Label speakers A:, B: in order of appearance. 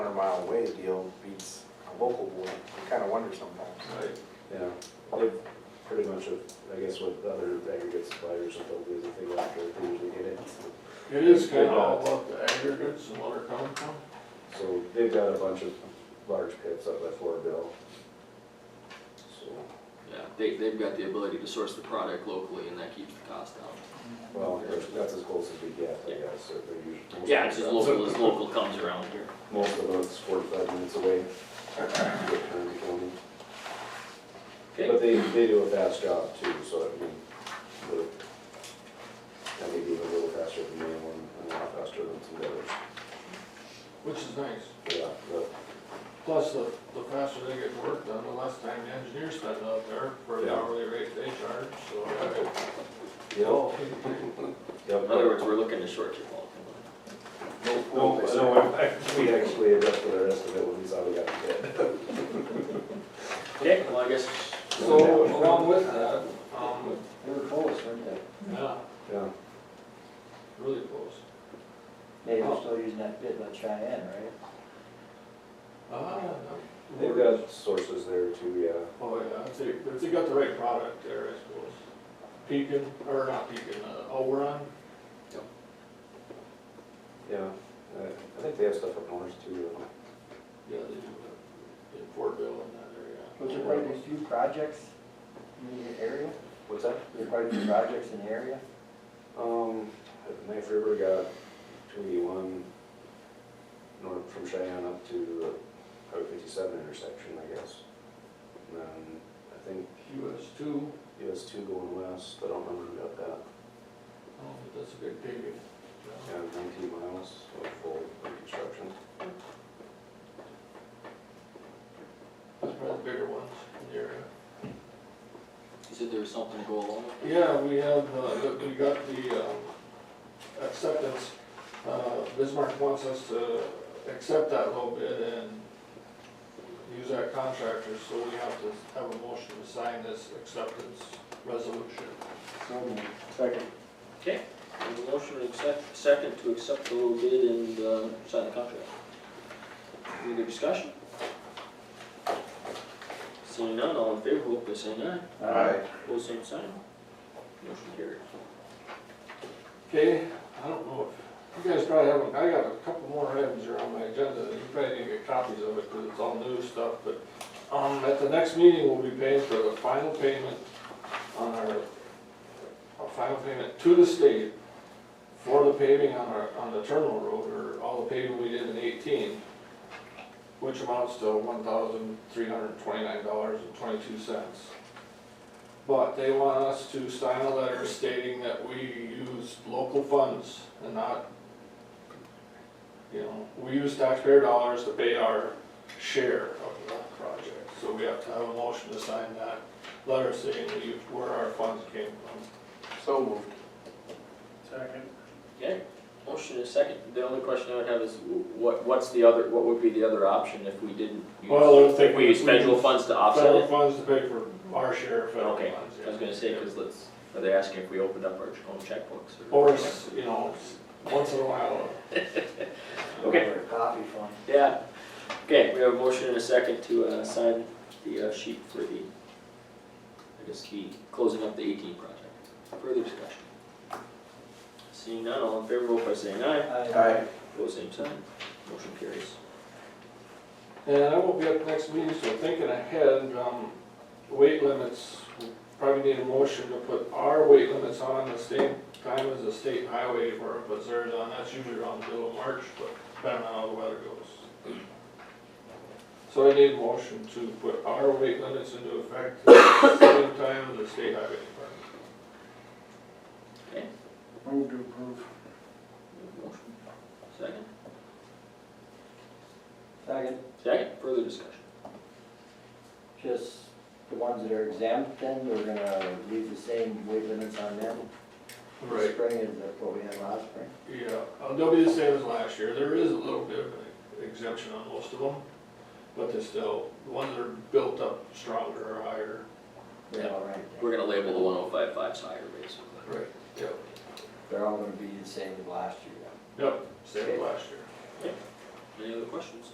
A: away deal beats a local board. I kind of wonder sometimes.
B: Right.
C: Yeah, they pretty much, have- I guess with other aggregate suppliers, what they'll do is if they go after it, they usually get it.
B: It is kind of all about the aggregates and where it comes from.
C: So they've got a bunch of large pits up by Fort Bill. So,
D: Yeah, they, they've got the ability to source the product locally and that keeps the cost down.
C: well, that's- that's as close as we get, I
D: Yeah.
C: guess, or they're usually.
D: Yeah, it's as local as local comes around here.
C: Most of us forty-five minutes away. Good turn to county. But
D: Okay,
C: they, they do a fast job too, so I mean, they're, that may be a little faster than me and and a lot faster than some others.
B: Which is nice.
C: Yeah, but uh,
B: Plus, the, the faster they get work done, the less time the engineers spend out there for the
C: Yeah.
B: hourly rate they charge, so.
C: Yep, yep.
D: in other words, we're looking to short your fault.
C: No, no, I- I- we actually adjusted our estimate when we saw we got the bid.
D: Okay, well, I guess,
C: So,
B: along with that, um,
E: They were close, weren't they?
B: yeah,
C: Yeah,
B: really close.
E: Maybe they're still using that bid by Cheyenne, right?
B: Ah,
C: they've got sources there too, yeah.
B: Oh, yeah, if they, if they got the right product there, I suppose. Pekin, or not Pekin, uh, Oberon,
C: Yeah, I I think they have stuff up north too. don't they?
B: yeah, they do, uh, in Fortville in that area.
E: Was there quite a few projects in the area?
C: What's that?
E: Were there quite a few projects in the area?
C: Um, the Knife River got two eighty-one north from Cheyenne up to the Highway fifty-seven intersection, I guess. And then I think
B: US two,
C: US two going west, but I don't remember who got that.
B: oh, but that's a big pig. uh,
C: Yeah, nineteen miles of full reconstruction.
B: That's probably the bigger ones in the area.
D: you said there was something to go along with?
B: Yeah, we have, uh, the- we got the um, acceptance. Uh, Bismarck wants us to accept that low bid and use our contractors, so we have to have a motion to sign this acceptance resolution.
E: Second.
D: Okay, and the motion to accept, second to accept the low bid and, uh, sign the contract. Any other discussion? Seeing none, all in favor, vote by saying aye. Pose same sign. Motion carried.
B: Okay, I don't know if, you guys probably haven't, I got a couple more items here on my agenda, you probably didn't get copies of it, because it's all new stuff, but, um, at the next meeting, we'll be paying for the final payment on our, our final payment to the state for the paving on our, on the terminal road, or all the paving we did in eighteen, which amounts to one thousand three hundred and twenty-nine dollars and twenty-two cents. But they want us to sign a letter stating that we use local funds and not, you know, we use taxpayer dollars to pay our share of the project. So we have to have a motion to sign that letter saying that you, where our funds came from.
A: So moved.
B: Second.
D: Okay, motion is second. The only question I would have is what, what's the other, what would be the other option if we didn't use?
B: Well, if they-
D: If we use federal funds to offset
B: Federal
D: it?
B: funds to pay for our share of federal
D: Okay,
B: funds.
D: I was gonna say, cause let's, are they asking if we opened up our own checkbooks or?
B: Or, s- you know, s- once in a while,
D: Okay.
E: Or a Coffee fund.
D: Yeah, okay, we have a motion and a second to, uh, sign the uh, sheet for the, I guess the, closing up the eighteen project. Further discussion? Seeing none, all in favor, vote by saying aye.
E: Aye.
D: Pose same sign. Motion carries.
B: And I won't be at the next meeting, so thinking ahead, um, weight limits, we probably need a motion to put our weight limits on the same time as the state highway for our buzzers on, that's usually around the middle of March, but depending on how the weather goes. So I need a motion to put our weight limits into effect at the same time as the state highway department.
E: Move to approve.
D: Motion. Second?
E: Second,
D: Second, further discussion?
E: just the ones that are exempt then, we're gonna leave the same weight limits on them. Spring is what we had last spring.
B: Yeah, uh, they'll be the same as last year. There is a little bit of an exemption on most of them, but they're still, the ones that are built up stronger or higher.
E: They're all right.
D: We're gonna label the one oh five fives higher, basically.
B: Right. Yep,
E: They're all gonna be the same as last year.
B: yep, same as last year.
D: Any other questions?